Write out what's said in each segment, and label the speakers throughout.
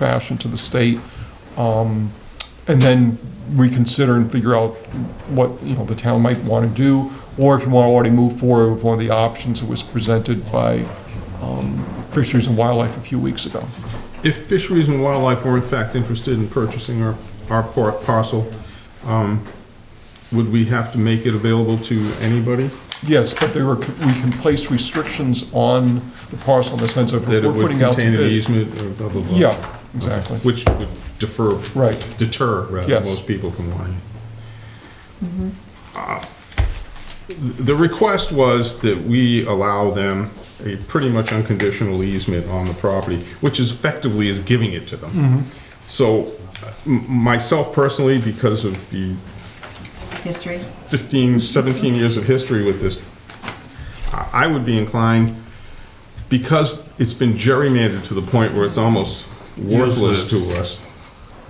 Speaker 1: fashion to the state, um, and then reconsider and figure out what, you know, the town might want to do, or if you want to already move forward with one of the options that was presented by um, Fisheries and Wildlife a few weeks ago.
Speaker 2: If Fisheries and Wildlife were in fact interested in purchasing our, our par- parcel, um, would we have to make it available to anybody?
Speaker 1: Yes, but there were, we can place restrictions on the parcel in the sense of
Speaker 2: That
Speaker 1: if
Speaker 2: it
Speaker 1: we're
Speaker 2: would
Speaker 1: putting out to
Speaker 2: contain an
Speaker 1: bid.
Speaker 2: easement or blah, blah, blah?
Speaker 1: Yeah, exactly,
Speaker 2: Which would defer,
Speaker 1: right.
Speaker 2: deter rather,
Speaker 1: Yes.
Speaker 2: most people from wanting it. Uh, The request was that we allow them a pretty much unconditional easement on the property, which is effectively is giving it to them. So uh, m- myself personally, because of the
Speaker 3: histories.
Speaker 2: 15, 17 years of history with this, I I would be inclined, because it's been gerrymandered to the point where it's almost worthless to us,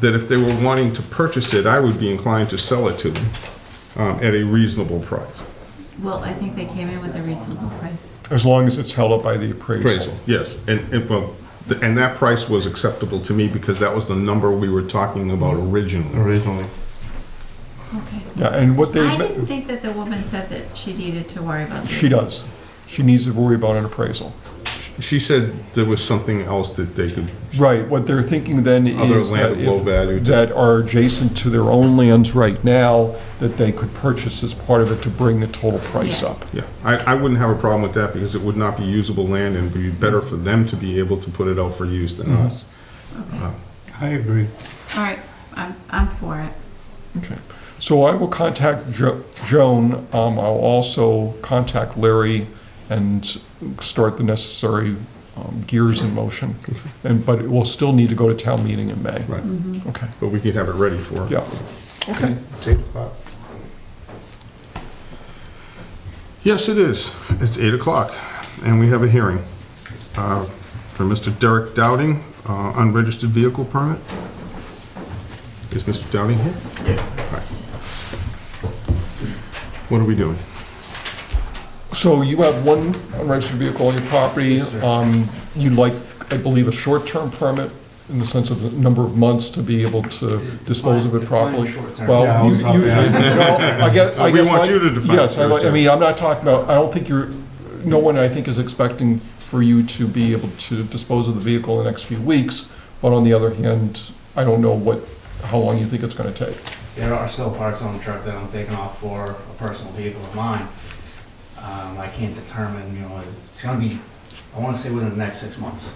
Speaker 2: that if they were wanting to purchase it, I would be inclined to sell it to them um, at a reasonable price.
Speaker 3: Well, I think they came in with a reasonable price.
Speaker 1: As long as it's held up by the appraisal.
Speaker 2: Appraisal, yes. And, and, well, th- and that price was acceptable to me because that was the number we were talking about originally.
Speaker 4: originally.
Speaker 3: Okay.
Speaker 1: Yeah, and what
Speaker 3: I
Speaker 1: they,
Speaker 3: didn't think that the woman said that she needed to worry about
Speaker 1: she
Speaker 3: this.
Speaker 1: does. She needs to worry about an appraisal.
Speaker 2: She said there was something else that they could,
Speaker 1: Right, what they're thinking then
Speaker 2: Other
Speaker 1: is
Speaker 2: land
Speaker 1: that
Speaker 2: of low value
Speaker 1: if,
Speaker 2: to-
Speaker 1: that are adjacent to their own lands right now, that they could purchase as part of it to bring the total price
Speaker 3: Yes.
Speaker 1: up.
Speaker 2: Yeah, I, I wouldn't have a problem with that because it would not be usable land and it would be better for them to be able to put it out for use than us.
Speaker 3: Okay.
Speaker 4: I agree.
Speaker 3: All right, I'm, I'm for it.
Speaker 1: Okay, so I will contact Jo- Joan, um, I'll also contact Larry and start the necessary um, gears in motion. And, but it will still need to go to town meeting in May.
Speaker 2: Right,
Speaker 1: Okay,
Speaker 2: but we could have it ready for.
Speaker 1: Mm-hmm. yeah, okay.
Speaker 2: Yes, it is. It's eight o'clock and we have a hearing uh, for Mr. Derek Dowding, uh, unregistered vehicle permit. Is Mr. Dowding here? Yeah. What are we doing?
Speaker 1: So you have one unregistered vehicle on your property. Um, You'd like, I believe, a short-term permit in the sense of the number of months to be able to dispose of it properly?
Speaker 4: Yeah, I
Speaker 1: Well, you,
Speaker 4: was about
Speaker 1: you,
Speaker 4: to ask.
Speaker 1: well, I guess, I
Speaker 2: We
Speaker 1: guess.
Speaker 2: want
Speaker 1: my-
Speaker 2: you to define
Speaker 1: Yes, I like, I
Speaker 2: short-term.
Speaker 1: mean, I'm not talking about, I don't think you're, no one, I think, is expecting for you to be able to dispose of the vehicle in the next few weeks. But on the other hand, I don't know what, how long you think it's gonna take.
Speaker 4: There are still parts on the truck that I'm taking off for a personal vehicle of mine. Um, I can't determine, you know, it's gonna be, I wanna say within the next six months.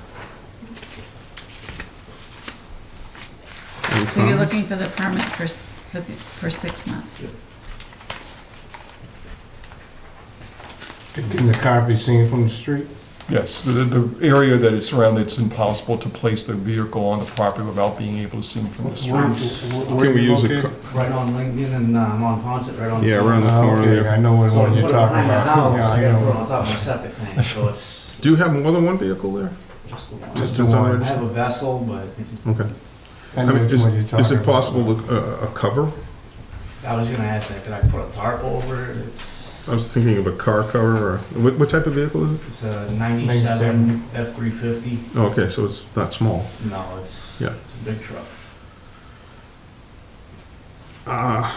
Speaker 2: Any
Speaker 3: So you're
Speaker 2: comments?
Speaker 3: looking for the permit for, for, the- for six months?
Speaker 5: Can the car be seen from the street?
Speaker 1: Yes, the, the area that it's surrounded, it's impossible to place the vehicle on the property without being able to see from the
Speaker 5: Where-
Speaker 1: street.
Speaker 5: where-
Speaker 2: Can we
Speaker 5: where
Speaker 2: use a,
Speaker 5: located?
Speaker 2: co-
Speaker 4: Right on Lincoln and, um, on Ponset, right on.
Speaker 2: yeah, around the
Speaker 5: Oh,
Speaker 2: corner
Speaker 5: Okay,
Speaker 2: there.
Speaker 5: I know what
Speaker 4: So I
Speaker 5: one
Speaker 4: put
Speaker 5: you're
Speaker 4: it
Speaker 5: talking
Speaker 4: behind the
Speaker 5: about.
Speaker 4: house,
Speaker 5: Yeah,
Speaker 4: I
Speaker 5: I
Speaker 4: gotta put it on
Speaker 5: know.
Speaker 4: top of my septic tank, so it's
Speaker 2: Do you have more than one vehicle there?
Speaker 4: just.
Speaker 5: Just
Speaker 2: That's
Speaker 5: the one.
Speaker 4: I have a vessel, but
Speaker 2: Okay.
Speaker 5: I
Speaker 2: I
Speaker 5: know
Speaker 2: mean,
Speaker 5: which
Speaker 2: is-
Speaker 5: one you're talking about.
Speaker 2: Is it possible to, uh, a cover?
Speaker 4: I was gonna ask that, could I put a tarp over it? It's,
Speaker 2: I was thinking of a car cover or, what, what type of vehicle is it?
Speaker 4: it's a ninety-seven F three fifty.
Speaker 2: Oh, Okay, so it's not small.
Speaker 4: No, it's,
Speaker 2: Yeah.
Speaker 4: it's a big truck.
Speaker 5: Ah.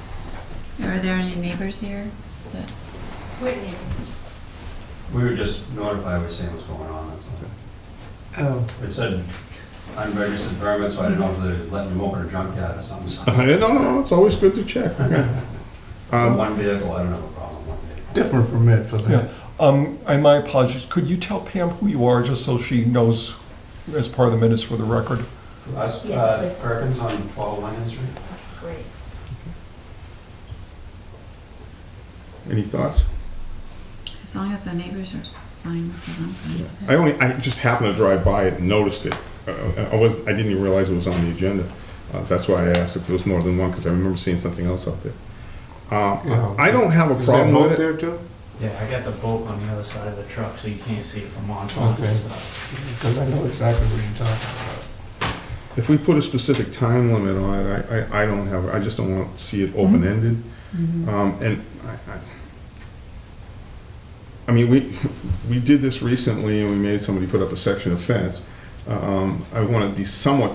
Speaker 2: Uh,
Speaker 3: Are there any neighbors here? that-
Speaker 6: We were just notified, we were saying what's going on, that's all.
Speaker 5: Oh,
Speaker 6: It said unregistered permit, so I didn't know if they let them open a junkyard or something. so-
Speaker 2: no, no, it's always good to check. Um,
Speaker 6: One vehicle, I don't have a problem with one vehicle.
Speaker 5: different permit for
Speaker 1: Yeah,
Speaker 5: that.
Speaker 1: um, and my apologies, could you tell Pam who you are, just so she knows as part of the minutes for the record?
Speaker 6: Us, uh, Perkins on twelve Lincoln Street?
Speaker 7: Great.
Speaker 2: Any thoughts?
Speaker 3: As long as the neighbors are fine with it, I'm fine with
Speaker 2: I
Speaker 3: it.
Speaker 2: only, I just happened to drive by it and noticed it. Uh, I was, I didn't even realize it was on the agenda. Uh, That's why I asked if there was more than one, because I remember seeing something else out there. Uh, I don't have a
Speaker 5: Is there
Speaker 2: problem
Speaker 5: boat
Speaker 2: with it.
Speaker 5: there too?
Speaker 4: Yeah, I got the boat on the other side of the truck, so you can't see it from on top
Speaker 5: Okay.
Speaker 4: and stuff.
Speaker 5: Because I know exactly what you're talking about.
Speaker 2: If we put a specific time limit on it, I, I, I don't have, I just don't want to see it open-ended.
Speaker 3: Mhm.
Speaker 2: Um, and I, I, I mean, we, we did this recently and we made somebody put up a section of fence. Um, I want to be somewhat